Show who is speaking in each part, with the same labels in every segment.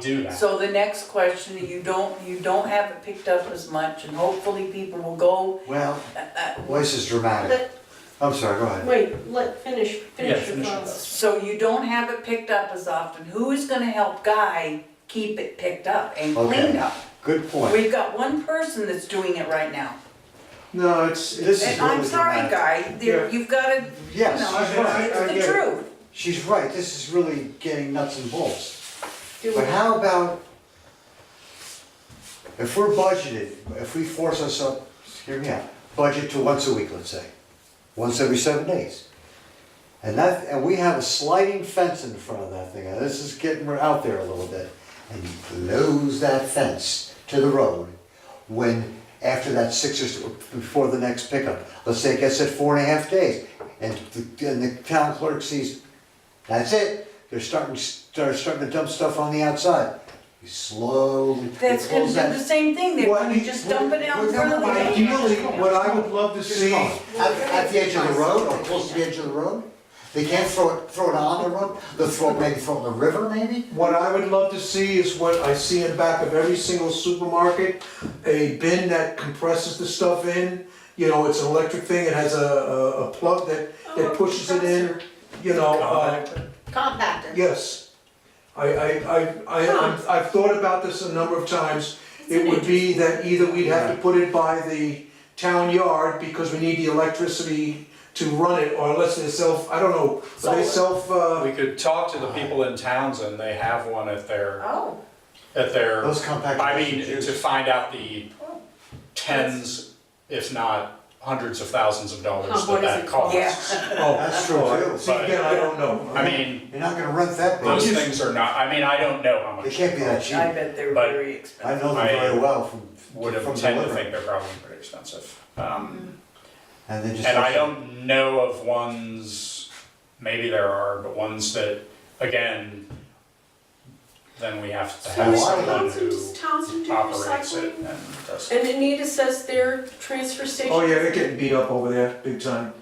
Speaker 1: do that.
Speaker 2: So the next question, you don't, you don't have it picked up as much and hopefully people will go,
Speaker 3: Well,
Speaker 2: uh, uh,
Speaker 3: voice is dramatic. I'm sorry, go ahead.
Speaker 4: Wait, let, finish,
Speaker 1: Yeah,
Speaker 4: finish your
Speaker 1: finish your
Speaker 4: thoughts.
Speaker 2: so you don't have it picked up as often. Who is gonna help Guy keep it picked up and cleaned
Speaker 3: Okay.
Speaker 2: up?
Speaker 3: Good point.
Speaker 2: We've got one person that's doing it right now.
Speaker 5: No, it's, it's,
Speaker 3: This is
Speaker 2: And
Speaker 3: really
Speaker 2: I'm sorry,
Speaker 3: dramatic.
Speaker 2: Guy, there,
Speaker 5: Yeah.
Speaker 2: you've gotta, you
Speaker 3: Yes,
Speaker 2: know,
Speaker 3: she's right.
Speaker 5: I- I
Speaker 2: it's
Speaker 5: get
Speaker 2: the
Speaker 5: it.
Speaker 2: truth.
Speaker 3: She's right. This is really getting nuts and bolts.
Speaker 4: Do
Speaker 3: But
Speaker 4: it.
Speaker 3: how about if we're budgeted, if we force ourselves, hear me out, budget to once a week, let's say, once every seven days. And that, and we have a sliding fence in front of that thing. Now, this is getting out there a little bit. And you close that fence to the road when, after that six or, so- before the next pickup. Let's say it gets at four and a half days and the, and the town clerk sees, that's it. They're starting, they're starting to dump stuff on the outside. You slowly, you
Speaker 2: That's gonna do
Speaker 3: close
Speaker 2: the
Speaker 3: that.
Speaker 2: same thing, they're
Speaker 5: Well,
Speaker 2: gonna
Speaker 5: we-
Speaker 2: just dump it out in
Speaker 3: we're
Speaker 2: front of the
Speaker 3: gonna-
Speaker 2: gate.
Speaker 5: ideally, what I would love to
Speaker 3: Just
Speaker 5: see,
Speaker 3: call it. At, at the edge of the road or close to the edge of the road? They can't throw it, throw it on the road, they'll throw, it maybe throw it in the river maybe?
Speaker 5: what I would love to see is what I see in back of every single supermarket, a bin that compresses the stuff in. You know, it's an electric thing, it has a, a, a plug that,
Speaker 4: Oh,
Speaker 5: that pushes it in, you know, uh,
Speaker 4: Compactor.
Speaker 5: yes. I, I, I, I, I'm- I've thought about this a number of times. It would be that either we'd have to put it by the town yard because we need the electricity to run it, or unless they self, I don't know, are they self, uh?
Speaker 1: We could talk to the people in Townsend, they have one at their,
Speaker 2: Oh,
Speaker 1: at their,
Speaker 3: Those compact.
Speaker 1: I mean,
Speaker 3: discs are
Speaker 1: to
Speaker 3: used.
Speaker 1: find out the tens, if not hundreds of thousands of dollars
Speaker 4: Huh,
Speaker 1: that
Speaker 4: what is
Speaker 1: that
Speaker 4: it called?
Speaker 1: costs.
Speaker 5: Oh,
Speaker 3: That's true too.
Speaker 5: see, again, I don't know.
Speaker 1: I mean,
Speaker 3: You're not gonna rent that
Speaker 1: those
Speaker 3: big.
Speaker 1: things are not, I mean, I don't know how much.
Speaker 3: It can't be that cheap.
Speaker 2: I bet they're
Speaker 1: But
Speaker 2: very
Speaker 3: I
Speaker 2: expensive.
Speaker 3: know them very well from,
Speaker 1: Would
Speaker 3: from
Speaker 1: have
Speaker 3: the
Speaker 1: tend to
Speaker 3: river.
Speaker 1: think they're probably pretty expensive. Um,
Speaker 3: And they just.
Speaker 1: And I don't know of ones, maybe there are, but ones that, again, then we have to
Speaker 4: So
Speaker 1: have
Speaker 4: is
Speaker 1: someone
Speaker 4: Townsend-
Speaker 1: who
Speaker 4: does Townsend do
Speaker 1: operates it
Speaker 4: recycling?
Speaker 1: and does it.
Speaker 4: And Anita says their transfer station.
Speaker 5: Oh, yeah, they're getting beat up over there, big time.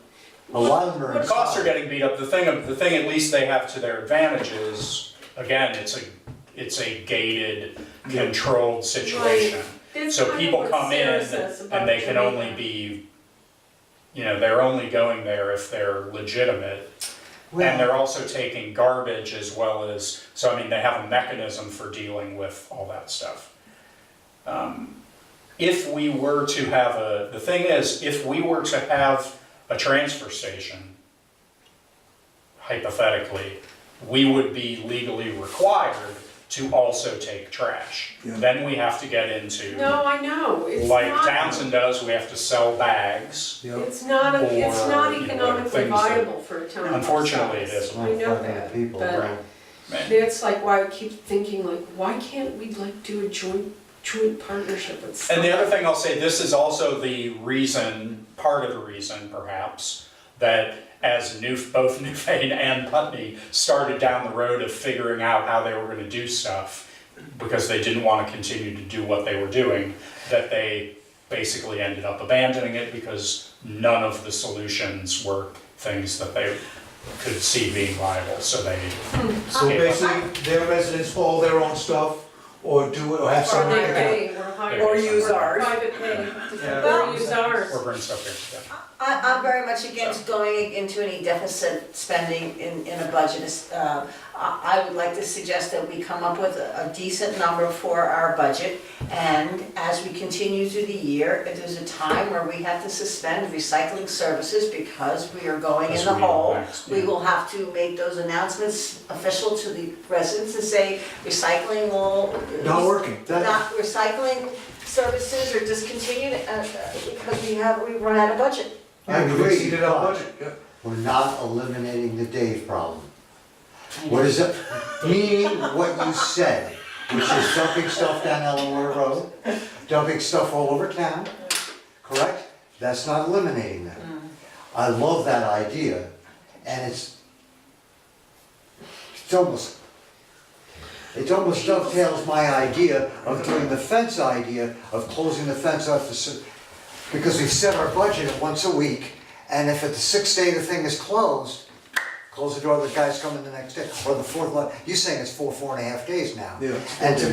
Speaker 3: A lot of them are.
Speaker 1: The costs are getting beat up, the thing, the thing at least they have to their advantage is, again, it's a, it's a gated, controlled situation.
Speaker 4: That's kind
Speaker 1: So
Speaker 4: of
Speaker 1: people
Speaker 4: what
Speaker 1: come
Speaker 4: Sarah
Speaker 1: in
Speaker 4: says
Speaker 1: and
Speaker 4: about
Speaker 1: they can
Speaker 4: Jamaica.
Speaker 1: only be, you know, they're only going there if they're legitimate. And they're also taking garbage as well as, so I mean, they have a mechanism for dealing with all that stuff. Um, If we were to have a, the thing is, if we were to have a transfer station, hypothetically, we would be legally required to also take trash.
Speaker 5: Yeah.
Speaker 1: Then we have to get into,
Speaker 4: No, I know, it's
Speaker 1: like
Speaker 4: not.
Speaker 1: Townsend does, we have to sell bags.
Speaker 5: Yep.
Speaker 4: It's not, a- it's
Speaker 1: Or,
Speaker 4: not
Speaker 1: you know,
Speaker 4: economically
Speaker 1: things that-
Speaker 4: viable for a town. of
Speaker 1: Unfortunately,
Speaker 4: our
Speaker 1: it
Speaker 4: size.
Speaker 1: isn't.
Speaker 4: I know that,
Speaker 3: People,
Speaker 4: but
Speaker 3: right.
Speaker 4: that's like why I keep thinking like, why can't we like do a joint, joint partnership with
Speaker 1: And
Speaker 4: someone?
Speaker 1: the other thing I'll say, this is also the reason, part of the reason perhaps, that as New, both Newfane and Putney started down the road of figuring out how they were gonna do stuff, because they didn't wanna continue to do what they were doing, that they basically ended up abandoning it because none of the solutions were things that they could see being viable, so they,
Speaker 5: So basically, their residents haul their own stuff, or do it, or have
Speaker 4: Or
Speaker 5: someone
Speaker 4: they
Speaker 5: pick it
Speaker 4: pay, or hire.
Speaker 2: Or use ours.
Speaker 4: Privately,
Speaker 5: Yeah.
Speaker 4: or use ours.
Speaker 1: or bring stuff here, yeah.
Speaker 6: I, I'm very much against going into any deficit spending in, in a budget. It's, uh, I, I would like to suggest that we come up with a a decent number for our budget. And as we continue through the year, if there's a time where we have to suspend recycling services because we are going in
Speaker 1: As
Speaker 6: the
Speaker 1: we are
Speaker 6: hole,
Speaker 1: next,
Speaker 6: we
Speaker 1: yeah.
Speaker 6: will have to make those announcements official to the residents and say recycling will. uh,
Speaker 5: up. Not working.
Speaker 6: Not recycling services are discontinued uh, uh, because we have, we run out of budget.
Speaker 3: I
Speaker 5: Yeah, we
Speaker 3: agree,
Speaker 5: exceeded our
Speaker 3: but-
Speaker 5: budget, yeah.
Speaker 3: We're not eliminating the Dave problem. What is it, meaning what you said, which is dumping stuff down Delaware Road, dumping stuff all over town, correct? That's not eliminating them. I love that idea, and it's, it's almost, it almost dovetails my idea of doing the fence idea, of closing the fence off the, cer- because we set our budget at once a week, and if at the sixth day the thing is closed, Close the door, the guy's coming the next day, or the fourth, one. you're saying it's four, four and a half days now.
Speaker 5: Yeah, it's four
Speaker 3: And to
Speaker 5: days.